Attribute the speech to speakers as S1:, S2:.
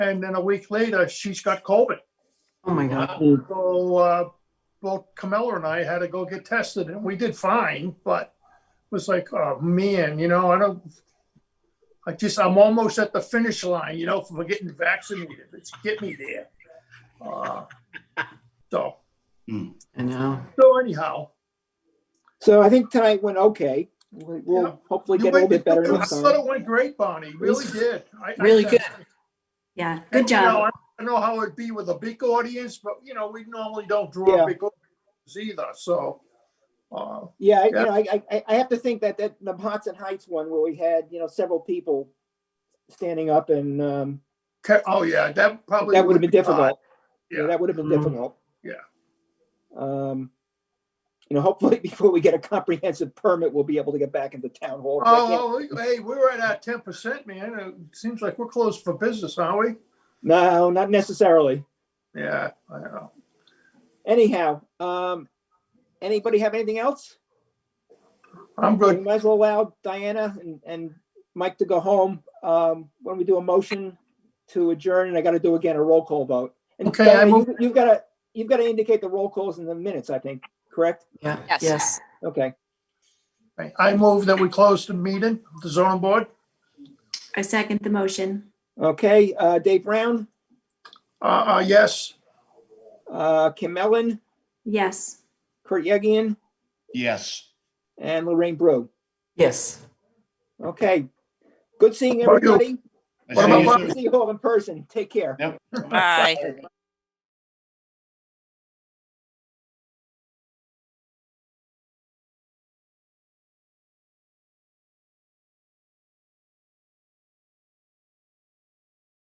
S1: And then a week later, she's got COVID.
S2: Oh, my God.
S1: So, uh, both Camilla and I had to go get tested and we did fine, but it was like, oh man, you know, I don't, I just, I'm almost at the finish line, you know, for getting vaccinated. It's get me there. Uh, So,
S2: I know.
S1: so anyhow,
S3: So I think tonight went okay. We-
S1: Yeah.
S3: We'll hopefully
S1: You
S3: get a little
S1: went-
S3: bit better
S1: I
S3: next
S1: thought
S3: time.
S1: it went great, Bonnie. Really did. I- I-
S2: Really good.
S4: Yeah, good
S1: You know,
S4: job.
S1: I don't know how it'd be with a big audience, but you know, we normally don't draw
S3: Yeah.
S1: big audiences either. So, uh,
S3: Yeah, I- you
S1: Yeah.
S3: know, I, I, I have to think that, that the Hudson Heights one where we had, you know, several people standing up and, um,
S1: ca- oh yeah, that probably
S3: that would have been
S1: would be hard.
S3: difficult. Yeah,
S1: Yeah.
S3: that would have been
S2: Mhm.
S3: difficult.
S1: Yeah.
S3: Um, you know, hopefully before we get a comprehensive permit, we'll be able to get back into town hall. I can't-
S1: Oh, we- hey, we're at our ten percent, man. It seems like we're closed for business, aren't
S3: No, not necessarily.
S1: we? Yeah, I know.
S3: Anyhow, um, anybody have anything else?
S1: I'm
S3: We
S1: good.
S3: might as well allow Diana and, and Mike to go home. Um, when we do a motion to adjourn, and I gotta do again a roll call vote. And
S1: Okay, I
S3: Diana, you-
S1: move-
S3: You've gotta, you've gotta indicate the roll calls in the minutes, I think, correct?
S2: Yeah.
S5: Yes.
S2: Yes.
S3: Okay,
S1: I- I move that we close the meeting, the zoning board.
S4: I second the motion.
S3: okay, uh, Dave Brown,
S1: Uh, uh, yes.
S3: uh, Kim Ellen,
S4: Yes.
S3: Kurt Yegian,
S6: Yes.
S3: and Lorraine Brew.
S2: Yes.
S3: Okay, good seeing
S1: How about you?
S3: everybody.
S6: I
S1: What
S6: say
S1: about
S6: you
S1: Bob?
S6: too.
S3: See you all in person. Take care.
S6: Yep.
S5: Bye.